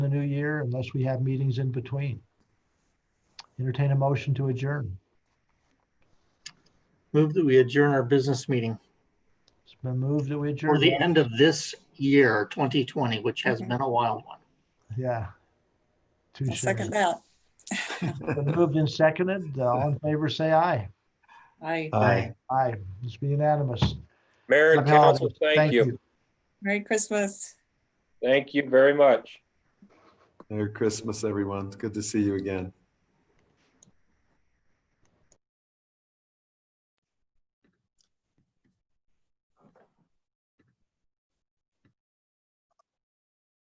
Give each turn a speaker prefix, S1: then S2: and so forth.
S1: unless we have meetings in between. Entertain a motion to adjourn.
S2: Move that we adjourn our business meeting
S1: It's been moved that we adjourn.
S2: for the end of this year, 2020, which has been a wild one.
S1: Yeah.
S3: I'll
S1: Touche.
S3: second that.
S1: Been Moved and seconded. Uh, All in favor, say aye.
S3: Aye.
S2: Aye.
S1: Aye. Let's be unanimous.
S4: Mayor and
S1: Happy holidays.
S4: council, thank you.
S3: Merry Christmas.
S4: Thank you very much.
S5: Merry Christmas, everyone. It's good to see you again.